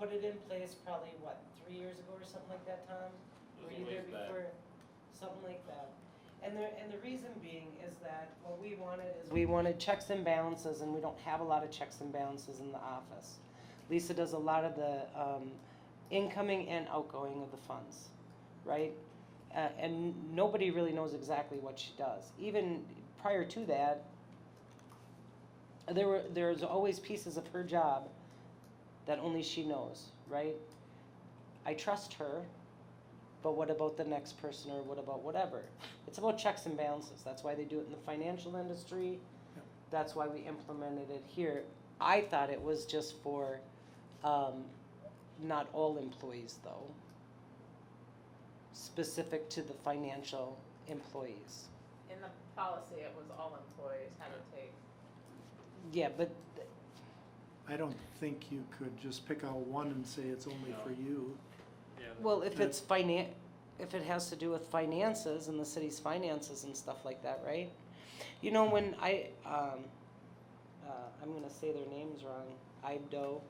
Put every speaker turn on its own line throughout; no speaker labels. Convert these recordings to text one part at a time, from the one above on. put it in place probably, what, three years ago or something like that, Tom?
It
Were
was a
you there
ways back.
before? Something like that. And the, and the reason being is that what we wanted is. We wanted checks and balances, and we don't have a lot of checks and balances in the office. Lisa does a lot of the, um, incoming and outgoing of the funds, right? Uh, and nobody really knows exactly what she does. Even prior to that, there were, there's always pieces of her job that only she knows, right? I trust her, but what about the next person or what about whatever? It's about checks and balances. That's why they do it in the financial industry. That's why we implemented it here. I thought it was just for, um, not all employees though. Specific to the financial employees.
In the policy, it was all employees had to take.
Yeah, but
I don't think you could just pick out one and say it's only for you.
Yeah,
Well, if it's finan, if it has to do with finances and the city's finances and stuff like that, right? You know, when I, um, uh, I'm gonna say their names wrong, Ibdo,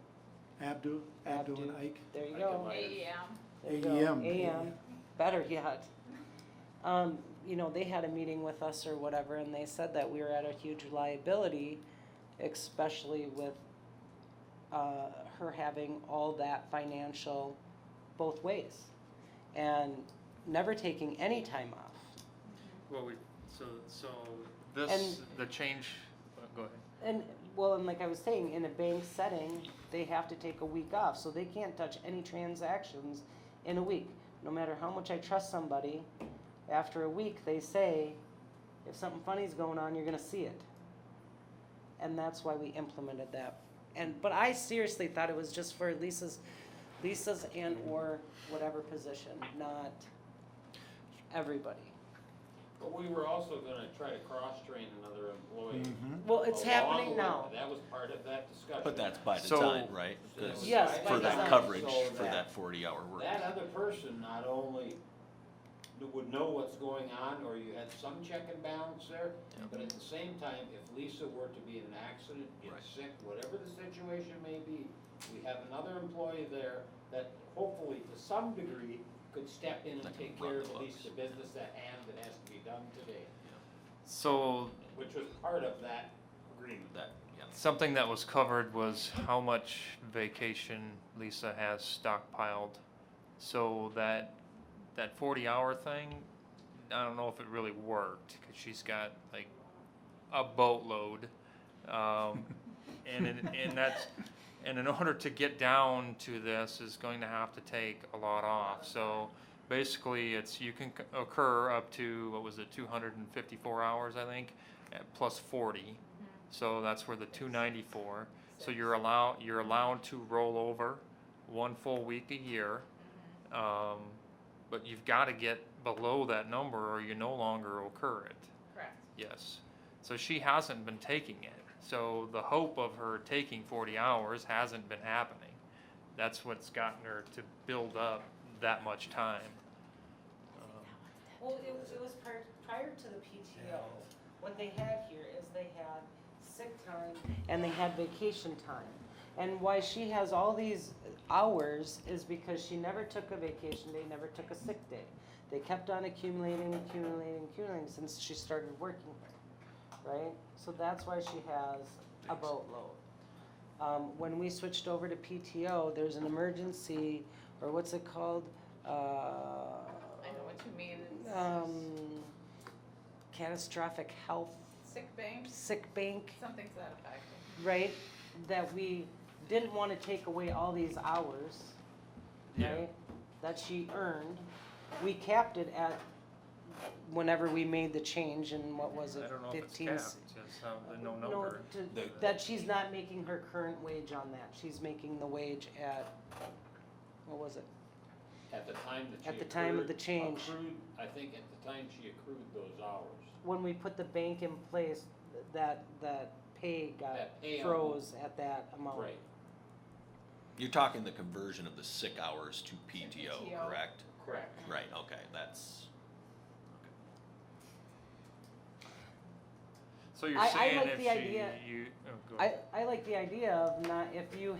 Abdu, Abdu and
Abdu.
Ike.
there you
I
go.
can Right.
AEM.
There you go.
AEM.
AM, better yet. Um, you know, they had a meeting with us or whatever, and they said that we were at a huge liability, especially with, uh, her having all that financial both ways. And never taking any time off.
Well, we, so, so this, the change, oh, go ahead.
And, well, and like I was saying, in a bank setting, they have to take a week off, so they can't touch any transactions in a week. No matter how much I trust somebody, after a week, they say, if something funny's going on, you're gonna see it. And that's why we implemented that. And, but I seriously thought it was just for Lisa's, Lisa's and or whatever position, not everybody.
But we were also gonna try to cross-train another employee.
Mhm.
Well, it's
along
happening
with-
now.
That was part of that discussion.
But that's by
So-
design, right?
So that
'Cause
was
Yes,
by
For
design,
that coverage,
so
for that forty-hour work.
That other person not only kn- would know what's going on, or you had some check and balance there, but at the same time, if Lisa were to be in an accident, get
Right.
sick, whatever the situation may be, we have another employee there that hopefully to some degree could step in
That
and
can
take
run
care
the
of at least the
books.
business at hand that has to be done today,
So
which was part of that agreement.
That, yeah.
something that was covered was how much vacation Lisa has stockpiled. So that, that forty hour thing, I don't know if it really worked, cause she's got like a boatload. Um, and, in- and that's, and in order to get down to this is going to have to take a lot off, so basically it's, you can c- occur up to, what was it, two hundred and fifty-four hours, I think, at plus forty.
Mm-hmm,
So that's where the two ninety-four, so you're allowed, you're allowed to roll over one full week a year.
mm-hmm,
Um, but you've gotta get below that number or you no longer occur it.
Correct.
Yes. So she hasn't been taking it. So the hope of her taking 40 hours hasn't been happening. That's what's gotten her to build up that much time. Um,
Well, it was, it was prior, prior to the PTO, what they had here is they had sick time. And they had vacation time. And why she has all these hours is because she never took a vacation day, never took a sick day. They kept on accumulating, accumulating, accumulating since she started working here, right? So that's why she has a boatload. Um, when we switched over to PTO, there's an emergency, or what's it called? Uh.
I know what you mean.
um, catastrophic health
Sick bank,
sick bank,
something to that effect.
right? That we didn't want to take away all these hours,
Yeah.
right? That she earned. We capped it at whenever we made the change in what was it,
I don't know if it's
fifteen?
capped,
s-
just how the no number.
to-
The-
That she's not making her current wage on that. She's making the wage at, what was it?
At the time that she
At the time of the
accrued-
change.
accrued- I think at the time she accrued those hours.
When we put the bank in place, th- that, that pay got
That pay amount.
froze at that amount.
Right,
You're talking the conversion of the sick hours to PTO,
PTO.
correct?
correct.
Right, okay, that's,
So you're
I- I
saying
like
if
the
she,
idea-
you, oh, go
I,
ahead.
I like the idea of not, if you